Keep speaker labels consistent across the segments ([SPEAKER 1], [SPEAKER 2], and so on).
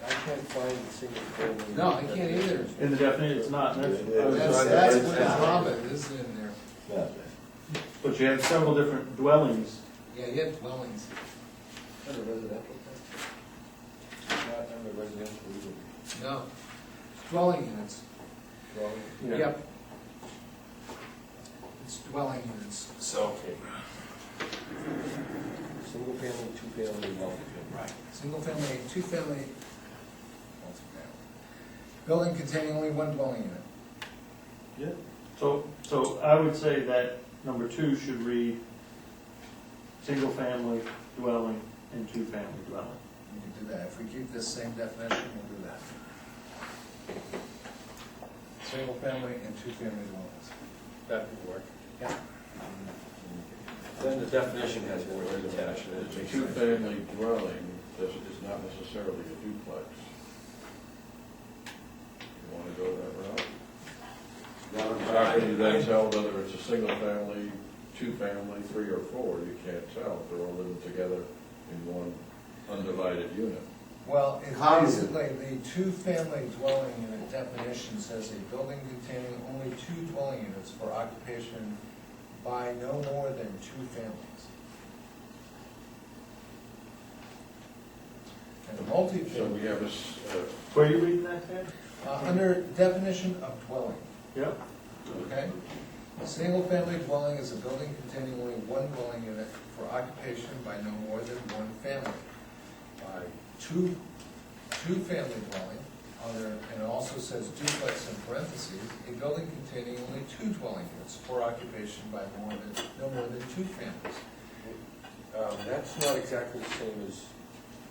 [SPEAKER 1] find the single family.
[SPEAKER 2] No, I can't either.
[SPEAKER 3] In the definition, it's not, and that's, I was
[SPEAKER 2] That's,
[SPEAKER 3] trying to-
[SPEAKER 2] that's what is Robin, is in there.
[SPEAKER 3] but you have several different dwellings.
[SPEAKER 2] Yeah, you have dwellings.
[SPEAKER 1] Under residential. Not under residential either.
[SPEAKER 2] No, dwelling units.
[SPEAKER 1] Well,
[SPEAKER 2] Yep. It's dwelling units. So.
[SPEAKER 1] Single family, two family, multi-family.
[SPEAKER 2] Right. Single family, two family, multifamily. Building containing only one dwelling unit.
[SPEAKER 3] Yeah. So, so I would say that number two should read, single-family dwelling and two-family dwelling.
[SPEAKER 2] We can do that. If we keep this same definition, we'll do that. Single family and two family dwellings.
[SPEAKER 4] That would work.
[SPEAKER 2] Yeah.
[SPEAKER 1] Um,
[SPEAKER 4] Then the definition has more attached to
[SPEAKER 5] A
[SPEAKER 4] it.
[SPEAKER 5] two-family dwelling does, is not necessarily a duplex. You wanna go that route? How can you
[SPEAKER 1] Um,
[SPEAKER 5] then tell whether it's a single-family, two-family, three or four? You can't tell, they're all living together in one undivided unit.
[SPEAKER 2] Well, it's
[SPEAKER 4] Common.
[SPEAKER 2] basically, the two-family dwelling unit definition says a building containing only two dwelling units for occupation by no more than two families. And a
[SPEAKER 5] So
[SPEAKER 2] multi-family,
[SPEAKER 5] we have a, s- a-
[SPEAKER 3] Where are you reading that, Ted?
[SPEAKER 2] uh, under definition of dwelling,
[SPEAKER 3] Yep.
[SPEAKER 2] okay? A single-family dwelling is a building containing only one dwelling unit for occupation by no more than one family. by two, two-family dwelling, other, and it also says duplex in parentheses, a building containing only two dwelling units for occupation by more than, no more than two families.
[SPEAKER 1] Um, that's not exactly the same as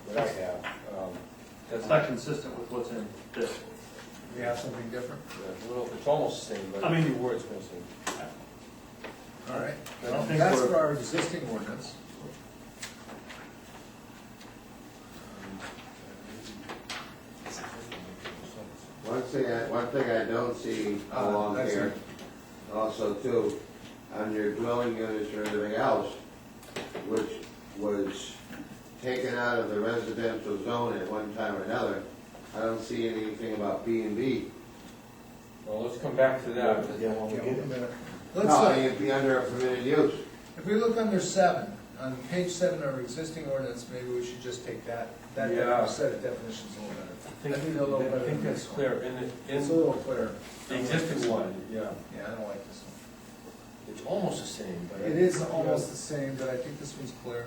[SPEAKER 1] what I have. Um,
[SPEAKER 3] That's not consistent with what's in this.
[SPEAKER 2] We have something different?
[SPEAKER 1] yeah, well, it's almost the same, but
[SPEAKER 3] I mean-
[SPEAKER 1] the word's missing.
[SPEAKER 2] All right,
[SPEAKER 3] I don't think
[SPEAKER 2] that's
[SPEAKER 3] we're-
[SPEAKER 2] for our existing ordinance.
[SPEAKER 6] One thing I, one thing I don't see
[SPEAKER 2] Uh,
[SPEAKER 6] along
[SPEAKER 2] that's
[SPEAKER 6] here,
[SPEAKER 2] it.
[SPEAKER 6] also too, on your dwelling units or anything else, which was taken out of the residential zone at one time or another, I don't see anything about B and B.
[SPEAKER 1] Well, let's come back to that.
[SPEAKER 2] Yeah, wait a minute. Let's,
[SPEAKER 6] No,
[SPEAKER 2] uh,
[SPEAKER 6] it'd be under a permitted use.
[SPEAKER 2] if we look under seven, on page seven of our existing ordinance, maybe we should just take that, that
[SPEAKER 1] Yeah.
[SPEAKER 2] definition- set of definitions a little better. That'd be a little
[SPEAKER 1] I
[SPEAKER 2] better
[SPEAKER 1] think
[SPEAKER 2] than
[SPEAKER 1] that's
[SPEAKER 2] this one.
[SPEAKER 1] clear, in the, in
[SPEAKER 2] It's a little clearer.
[SPEAKER 1] the existing one, yeah,
[SPEAKER 2] Yeah, I don't like this one.
[SPEAKER 1] it's almost the same, but. I-
[SPEAKER 2] It is almost the same, but I think this one's clear.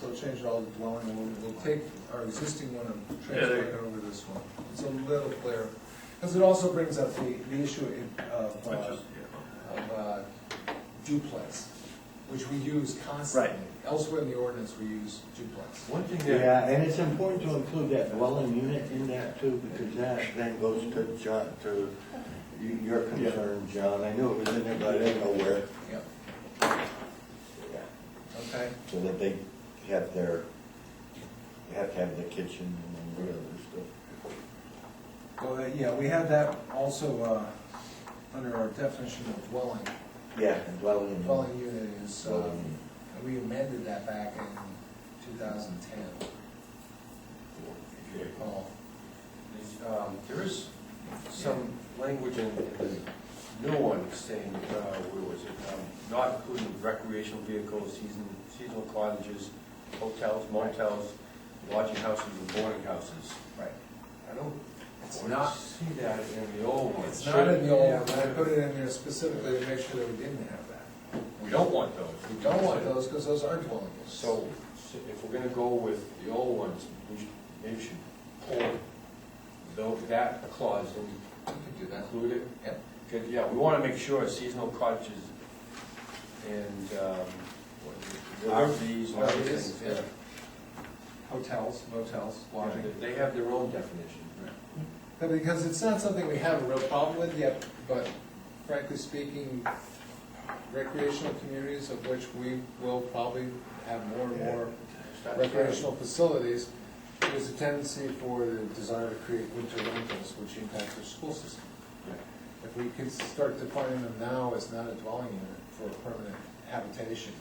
[SPEAKER 2] So change all the dwelling, and we'll, we'll take our existing one and transfer it over this one. It's a little clearer, because it also brings up the, the issue of, uh, of uh, duplex, which we use constantly. Elsewhere in the ordinance, we use duplex.
[SPEAKER 1] One thing that,
[SPEAKER 7] Yeah, and it's important to include that dwelling unit in that too, because that then goes to John, to y- your concern, John. I knew it was in there, but I didn't know where,
[SPEAKER 2] Yep. Okay,
[SPEAKER 7] so that they have their, you have to have the kitchen and whatever stuff.
[SPEAKER 2] well, uh, yeah, we have that also, uh, under our definition of dwelling.
[SPEAKER 7] Yeah, and dwelling Um, unit.
[SPEAKER 2] Dwelling unit is, uh,
[SPEAKER 7] Mm-hmm. Dwelling unit.
[SPEAKER 2] we amended that back in 2010, if you recall.
[SPEAKER 1] um, there is some language in the new one saying, uh, where was it, um, not including recreational vehicles, season, seasonal cottages, hotels, motels, lodging houses, and boarding houses.
[SPEAKER 2] Right.
[SPEAKER 1] I don't, I don't see that in the old one.
[SPEAKER 2] It's not in the old, one. I put it in there specifically to make sure that we didn't have that.
[SPEAKER 1] We don't want those.
[SPEAKER 2] We don't want those, because those are dwelling units.
[SPEAKER 1] So, so if we're gonna go with the old ones, we should, maybe we should pull tho- that clause and
[SPEAKER 2] We can do that.
[SPEAKER 1] include it.
[SPEAKER 2] Yep.
[SPEAKER 1] Good, yeah, we wanna make sure seasonal cottages and, um, what, RVs, and
[SPEAKER 2] RVs, yeah.
[SPEAKER 1] everything,
[SPEAKER 2] Hotels, motels,
[SPEAKER 1] yeah,
[SPEAKER 2] lodging.
[SPEAKER 1] they have their own definition.
[SPEAKER 2] But Because it's not something we have a real problem with yet, but frankly speaking, recreational communities of which we will probably have more and more recreational facilities, there's a tendency for the desire to create winter rentals, which impacts our school system. If we can start defining them now as not a dwelling unit for permanent habitation,